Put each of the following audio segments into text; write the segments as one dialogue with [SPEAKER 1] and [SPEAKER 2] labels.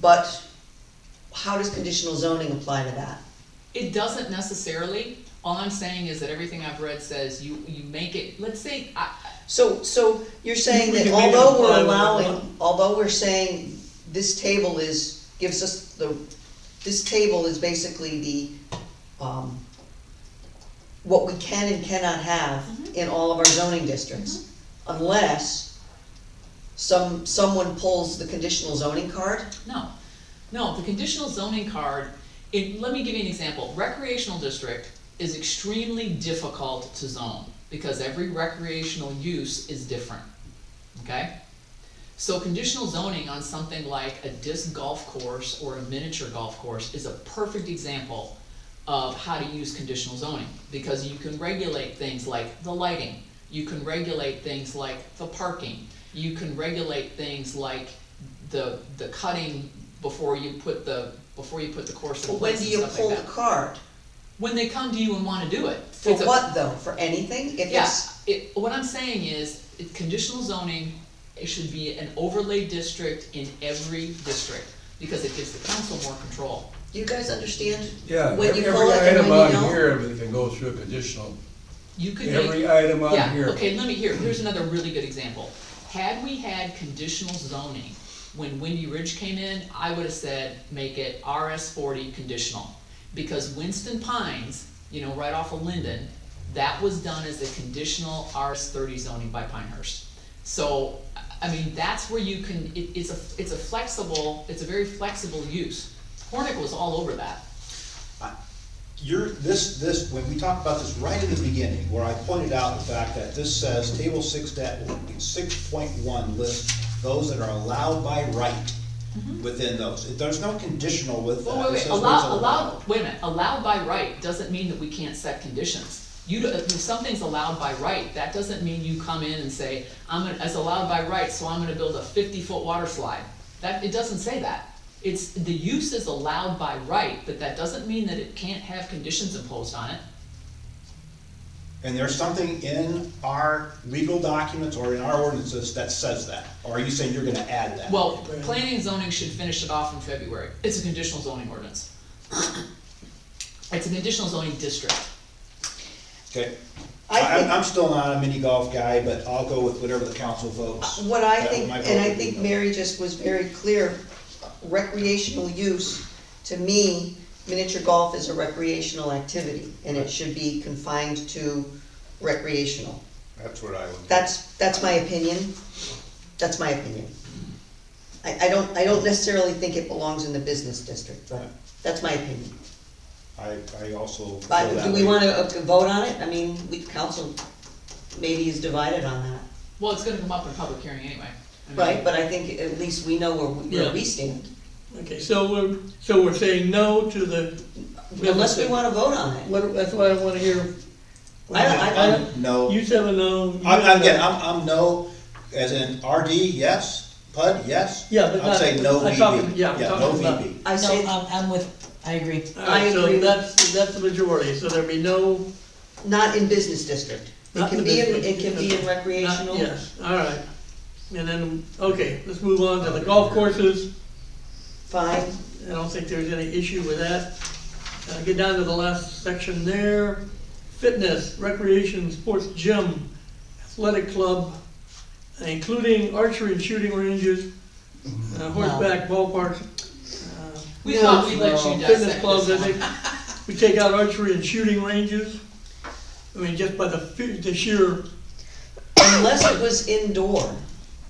[SPEAKER 1] but how does conditional zoning apply to that?
[SPEAKER 2] It doesn't necessarily, all I'm saying is that everything I've read says you, you make it, let's say, I,
[SPEAKER 1] So, so you're saying
[SPEAKER 3] We
[SPEAKER 1] that
[SPEAKER 3] can make it
[SPEAKER 1] although
[SPEAKER 3] apply
[SPEAKER 1] we're
[SPEAKER 3] to what we
[SPEAKER 1] allowing,
[SPEAKER 3] want.
[SPEAKER 1] although we're saying this table is, gives us the, this table is basically the, um, what we can and cannot have
[SPEAKER 2] Mhm.
[SPEAKER 1] in all of our zoning districts,
[SPEAKER 2] Mm-hmm.
[SPEAKER 1] unless some, someone pulls the conditional zoning card.
[SPEAKER 2] no. No, the conditional zoning card, it, let me give you an example, recreational district is extremely difficult to zone, because every recreational use is different, okay? So conditional zoning on something like a disc golf course or a miniature golf course is a perfect example of how to use conditional zoning, because you can regulate things like the lighting, you can regulate things like the parking, you can regulate things like the, the cutting before you put the, before you put the course in
[SPEAKER 1] But when
[SPEAKER 2] place
[SPEAKER 1] do
[SPEAKER 2] and
[SPEAKER 1] you
[SPEAKER 2] stuff like
[SPEAKER 1] pull the
[SPEAKER 2] that.
[SPEAKER 1] card?
[SPEAKER 2] When they come to you and wanna do it.
[SPEAKER 1] For
[SPEAKER 2] It's a-
[SPEAKER 1] what though? For anything? If
[SPEAKER 2] yeah,
[SPEAKER 1] it's,
[SPEAKER 2] it, what I'm saying is, it, conditional zoning, it should be an overlay district in every district, because it gives the council more control.
[SPEAKER 1] do you guys understand?
[SPEAKER 3] Yeah,
[SPEAKER 1] When
[SPEAKER 3] every
[SPEAKER 1] you pull it and
[SPEAKER 3] item
[SPEAKER 1] when you
[SPEAKER 3] on
[SPEAKER 1] don't?
[SPEAKER 3] here, everything goes through a conditional,
[SPEAKER 2] You could make,
[SPEAKER 3] every item on
[SPEAKER 2] yeah,
[SPEAKER 3] here.
[SPEAKER 2] okay, let me, here, here's another really good example. Had we had conditional zoning, when Windy Ridge came in, I would've said, make it RS forty conditional. Because Winston Pines, you know, right off of Linden, that was done as a conditional RS thirty zoning by Pinehurst. So, I- I mean, that's where you can, it, it's a, it's a flexible, it's a very flexible use. Hornick was all over that.
[SPEAKER 4] You're, this, this, when we talked about this right in the beginning, where I pointed out the fact that this says, table six that, six point one lists those that are allowed by right
[SPEAKER 1] Mm-hmm.
[SPEAKER 4] within those, there's no conditional with that.
[SPEAKER 2] Well, wait,
[SPEAKER 4] It
[SPEAKER 2] wait,
[SPEAKER 4] says what's
[SPEAKER 2] allow, allow, wait a minute, allowed by right doesn't mean that we can't set conditions. You, do- if something's allowed by right, that doesn't mean you come in and say, I'm gonna, it's allowed by right, so I'm gonna build a fifty-foot water slide. That, it doesn't say that. It's, the use is allowed by right, but that doesn't mean that it can't have conditions imposed on it.
[SPEAKER 4] And there's something in our legal documents or in our ordinances that says that, or are you saying you're gonna add that?
[SPEAKER 2] Well, planning and zoning should finish it off in February. It's a conditional zoning ordinance. It's a conditional zoning district.
[SPEAKER 4] Okay,
[SPEAKER 1] I
[SPEAKER 4] I, I'm,
[SPEAKER 1] think-
[SPEAKER 4] I'm still not a mini golf guy, but I'll go with whatever the council votes.
[SPEAKER 1] What I
[SPEAKER 4] That-
[SPEAKER 1] think,
[SPEAKER 4] my vote
[SPEAKER 1] and I
[SPEAKER 4] would be
[SPEAKER 1] think
[SPEAKER 4] no.
[SPEAKER 1] Mary just was very clear, recreational use, to me, miniature golf is a recreational activity, and it should be confined to recreational.
[SPEAKER 4] That's what I would. do.
[SPEAKER 1] That's, that's my opinion, that's my opinion. I, I don't, I don't necessarily think it belongs in the business district, but that's my opinion.
[SPEAKER 4] I, I also. feel
[SPEAKER 1] But
[SPEAKER 4] that
[SPEAKER 1] do we
[SPEAKER 4] way.
[SPEAKER 1] wanna uh, vote on it? I mean, we, council maybe is divided on that.
[SPEAKER 2] Well, it's gonna come up in public hearing anyway. I mean,
[SPEAKER 1] Right, but I think at least we know where, we- where we
[SPEAKER 3] Yeah.
[SPEAKER 1] stand.
[SPEAKER 3] Okay, so we're, so we're saying no to the.
[SPEAKER 1] Unless we wanna vote on it.
[SPEAKER 3] What, that's why I wanna hear.
[SPEAKER 1] I don't- I don't-
[SPEAKER 4] I'm No.
[SPEAKER 3] You said a no. you
[SPEAKER 4] I'm,
[SPEAKER 3] said
[SPEAKER 4] I'm,
[SPEAKER 3] a-
[SPEAKER 4] again, I'm, I'm no, as in RD, yes, PUD, yes.
[SPEAKER 3] Yeah, but
[SPEAKER 4] I'm saying no
[SPEAKER 3] not- I'm
[SPEAKER 4] VB.
[SPEAKER 3] talking- yeah, I'm
[SPEAKER 4] Yeah, no
[SPEAKER 3] talking about-
[SPEAKER 4] VB.
[SPEAKER 1] I
[SPEAKER 5] No,
[SPEAKER 1] say,
[SPEAKER 5] I'm,
[SPEAKER 3] um,
[SPEAKER 5] I'm with, I agree.
[SPEAKER 3] All right,
[SPEAKER 1] I agree.
[SPEAKER 3] So that's, that's the majority, so there'd be no.
[SPEAKER 1] not in business district. It
[SPEAKER 3] Not
[SPEAKER 1] can
[SPEAKER 3] in
[SPEAKER 1] be in,
[SPEAKER 3] business
[SPEAKER 1] it can be in
[SPEAKER 3] district.
[SPEAKER 1] recreational.
[SPEAKER 3] not- Yes, all right. And then, okay, let's move on to the golf courses.
[SPEAKER 1] Fine,
[SPEAKER 3] I don't think there's any issue with that. Uh, get down to the last section there. Fitness, recreation, sports gym, athletic club, uh, including archery and shooting ranges, uh, horseback ballparks. uh,
[SPEAKER 2] We thought we let you
[SPEAKER 3] uh,
[SPEAKER 2] dissect
[SPEAKER 3] Fitness clubs, I
[SPEAKER 2] this one.
[SPEAKER 3] think. We take out archery and shooting ranges. I mean, just by the, fe- the sheer,
[SPEAKER 1] unless it was indoor,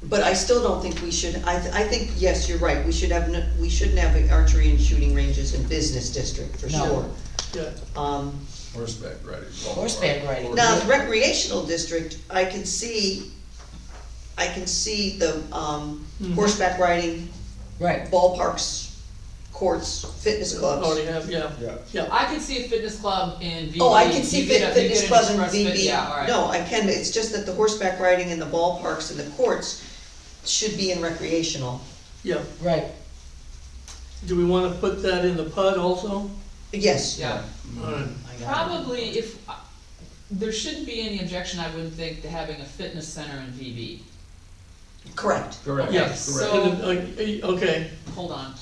[SPEAKER 1] but I still don't think we should, I, th- I think, yes, you're right, we should have, no- we shouldn't have archery and shooting ranges in business district, for
[SPEAKER 5] No.
[SPEAKER 1] sure.
[SPEAKER 3] yeah,
[SPEAKER 1] Um,
[SPEAKER 3] Horseback riding.
[SPEAKER 5] Horseback riding.
[SPEAKER 1] Now, the recreational district, I can see, I can see the, um,
[SPEAKER 3] Mhm.
[SPEAKER 1] horseback riding,
[SPEAKER 5] Right.
[SPEAKER 1] ballparks, courts, fitness clubs.
[SPEAKER 3] already have, yeah,
[SPEAKER 4] Yeah.
[SPEAKER 3] yeah.
[SPEAKER 2] I could see a fitness club in VB.
[SPEAKER 1] Oh, I can see
[SPEAKER 2] You get
[SPEAKER 1] fit-
[SPEAKER 2] a- you
[SPEAKER 1] fitness
[SPEAKER 2] get an
[SPEAKER 1] club and
[SPEAKER 2] express fit-
[SPEAKER 1] VB.
[SPEAKER 2] Yeah, all right.
[SPEAKER 1] No, I can, it's just that the horseback riding and the ballparks and the courts should be in recreational.
[SPEAKER 3] Yeah,
[SPEAKER 5] Right.
[SPEAKER 3] do we wanna put that in the PUD also?
[SPEAKER 1] Yes,
[SPEAKER 2] Yeah,
[SPEAKER 3] All right.
[SPEAKER 2] probably if, uh, there shouldn't be any objection, I wouldn't think, to having a fitness center in VB.
[SPEAKER 1] correct.
[SPEAKER 2] Correct.
[SPEAKER 3] Yes,
[SPEAKER 2] Correct.
[SPEAKER 3] so, like, eh, okay.
[SPEAKER 2] Hold on.